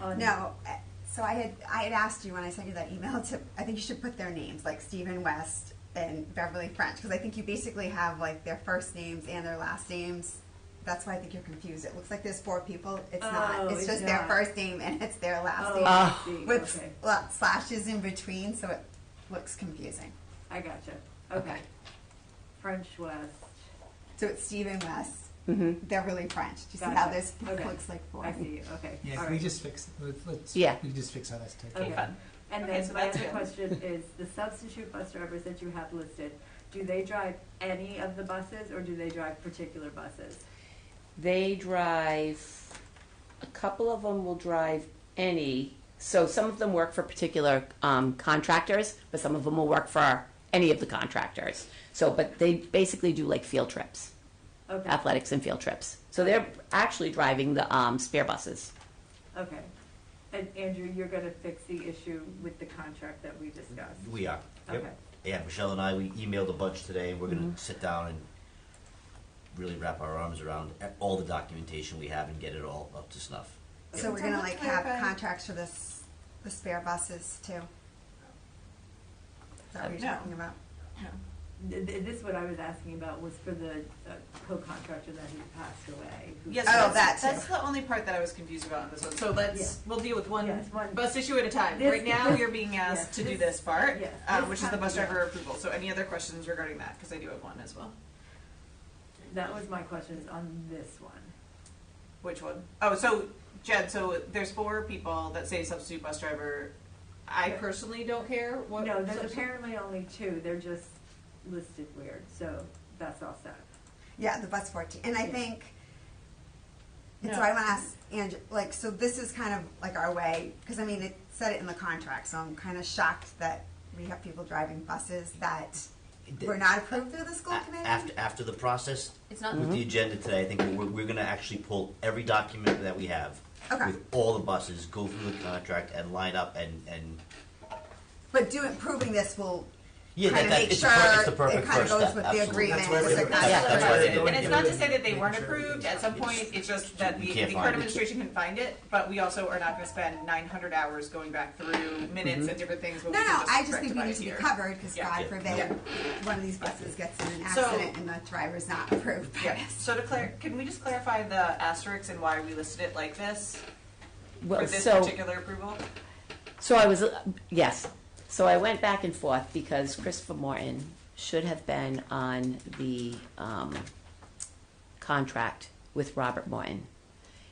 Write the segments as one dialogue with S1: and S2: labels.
S1: on- Oh,
S2: No, uh, so I had, I had asked you when I sent you that email to, I think you should put their names, like Stephen West and Beverly French, because I think you basically have like their first names and their last names. That's why I think you're confused. It looks like there's four people. It's
S1: Oh,
S2: not. It's
S1: it's
S2: just their
S1: not.
S2: first name and it's their last
S1: Oh,
S2: name
S1: I see.
S2: with
S1: okay,
S2: sla- slashes in between, so it looks confusing.
S1: I gotcha, okay. French West,
S2: So it's Stephen West,
S3: hmm
S2: Beverly French. Do you see how
S1: Gotcha.
S2: this
S1: Okay.
S2: looks like four?
S1: I see, okay.
S4: Yeah,
S1: all
S4: can we
S1: right.
S4: just fix, let's- let's,
S3: Yeah.
S4: we can just fix how that's taken.
S1: Okay.
S5: fun.
S1: And
S5: Okay,
S1: then
S5: so
S1: my
S5: that's
S1: other
S5: good.
S1: question is, the substitute bus drivers that you have listed, do they drive any of the buses or do they drive particular buses?
S3: They drive, a couple of them will drive any. So some of them work for particular um, contractors, but some of them will work for any of the contractors. So, but they basically do like field trips,
S1: Okay,
S3: athletics and field trips. So they're actually driving the um, spare buses.
S1: okay. And Andrew, you're gonna fix the issue with the contract that we discussed?
S6: We are. Yep.
S1: Okay,
S6: Yeah, Michelle and I, we emailed a bunch today, and we're
S2: Mm-hmm.
S6: gonna sit down and really wrap our arms around all the documentation we have and get it all up to snuff.
S2: So we're
S5: So
S2: gonna
S5: let's
S2: like have
S5: clarify-
S2: contracts for this, the spare buses too? Is that what you're
S5: No.
S2: talking about?
S1: Th- th- this, what I was asking about was for the uh, co-contractor that who passed away. who-
S5: Yes,
S2: Oh, that
S5: that's,
S2: too.
S5: that's the only part that I was confused about on this one. So let's
S1: Yeah.
S5: we'll deal with one
S1: Yes, one.
S5: bus issue at a time.
S1: This-
S5: right now,
S1: this-
S5: you're being asked
S1: yeah,
S5: to do
S1: this-
S5: this part,
S1: yes,
S5: uh,
S1: this
S5: which is the
S1: part,
S5: bus
S1: yeah.
S5: driver approval. So any other questions regarding that? Because I do have one as well.
S1: That was my question, is on this one.
S5: Which one? Oh, so Jed. So there's four people that say substitute bus driver. I
S1: Yeah.
S5: personally don't care what.
S1: No, there's
S5: substitute-
S1: apparently only two, they're just listed weird, so that's all set.
S2: Yeah, the bus fourteen, and I
S1: Yeah.
S2: think, and so
S5: No.
S2: I wanna ask, and, like, so this is kind of like our way, cause I mean, it said it in the contract, so I'm kinda shocked that we have people driving buses that were not approved through the school
S6: A-
S2: committee?
S6: After, after the process,
S2: It's not-
S6: with the agenda today, I think we're, we're gonna actually pull every document that we have
S2: Okay.
S6: with all the buses, go through the contract and line up and, and,
S2: But doing, proving this will
S6: yeah,
S2: Kinda
S6: that, that,
S2: make
S6: it's the per-
S2: sure
S6: it's the perfect
S2: it kinda
S6: first
S2: goes
S6: step,
S2: with the
S6: absolutely.
S2: agreement.
S4: That's why
S2: It's
S4: we're-
S2: like-
S6: That's- that's why they're doing
S5: And it's
S6: it.
S5: not to say that they
S4: Making
S5: weren't
S4: sure that
S5: approved,
S4: they-
S5: at some point, it's just that
S6: You
S5: the,
S6: can't
S5: the
S6: find
S5: current
S6: it.
S5: administration can find it, but we also are not gonna spend nine hundred hours going back through
S6: Mm-hmm.
S5: minutes and different things, when
S2: No,
S5: we can
S2: no, I just think we
S5: rectify
S2: need
S5: it
S2: to be
S5: here.
S2: covered, because
S5: Yeah.
S2: God
S6: Yeah.
S2: forbid, one of these buses gets in an
S5: So-
S2: accident and the driver's not approved by
S5: Yeah,
S2: us.
S5: so to clar, can we just clarify the asterisks and why we listed it like this,
S3: Well,
S5: for this
S3: so-
S5: particular approval?
S3: So I was, yes. So I went back and forth because Christopher Morton should have been on the um, contract with Robert Morton.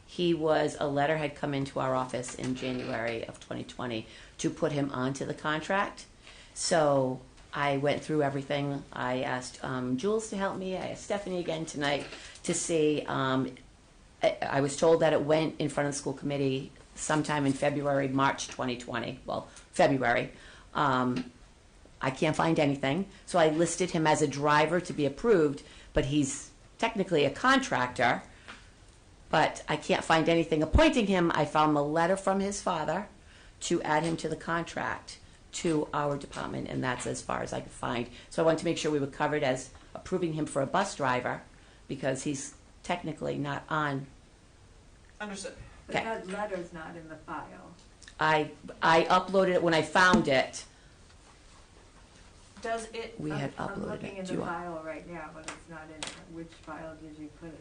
S3: He was, a letter had come into our office in January of 2020 to put him onto the contract. So I went through everything. I asked um, Jules to help me. I asked Stephanie again tonight to see um, I- I was told that it went in front of the school committee sometime in February, March 2020, well, February. Um, I can't find anything, so I listed him as a driver to be approved, but he's technically a contractor, but I can't find anything appointing him. I found a letter from his father to add him to the contract to our department, and that's as far as I could find. So I wanted to make sure we were covered as approving him for a bus driver, because he's technically not on.
S5: Understood,
S1: But
S3: Okay.
S1: that letter's not in the file.
S3: I, I uploaded it when I found it.
S5: does it,
S3: We
S1: I'm-
S3: had
S1: I'm
S3: uploaded
S1: looking in
S3: it.
S1: the
S3: Do you want-
S1: file right now, but it's not in, there. which file did you put it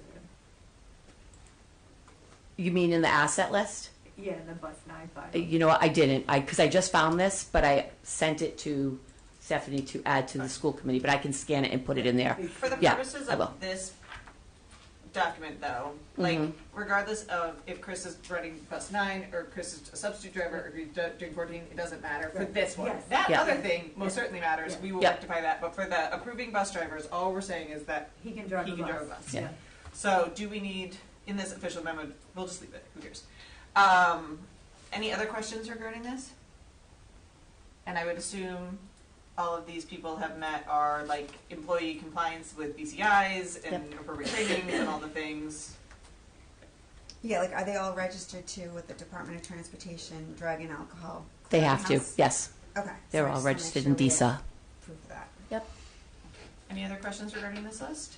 S1: in?
S3: You mean in the asset list?
S1: Yeah, in the bus nine file.
S3: Uh, You know, what, I didn't, I, because I just found this, but I sent it to Stephanie to add to the school committee, but I can scan it and put it in there.
S1: Please
S5: for the
S1: see.
S3: Yeah,
S5: purposes
S3: I will.
S5: of this document though, like
S3: Mhm.
S5: regardless of if Chris is running bus nine or Chris is a substitute driver or if he's do- doing fourteen, it doesn't matter for
S1: Right.
S5: this one.
S1: Yes.
S5: That
S3: Yeah.
S5: other thing most
S1: Yeah.
S5: certainly matters,
S1: Yeah.
S5: we will
S3: Yep.
S5: rectify that, but for the approving bus drivers, all we're saying is that
S1: He can drive
S5: He
S1: a
S5: can drive a
S1: bus.
S5: bus.
S3: Yeah.
S5: So do we need, in this official memo, we'll just leave it, who cares? Um, any other questions regarding this? And I would assume all of these people have met our like employee compliance with BCIs and appropriate trainings and all the things.
S2: Yeah, like, are they all registered too with the Department of Transportation, Drug and Alcohol?
S3: They have to,
S2: Clearinghouse?
S3: yes.
S2: Okay.
S3: They're
S2: so I
S3: all
S2: just wanna
S3: registered
S2: make
S3: in
S2: sure we
S3: DISA.
S2: approve that.
S3: Yep.
S5: Any other questions regarding this list?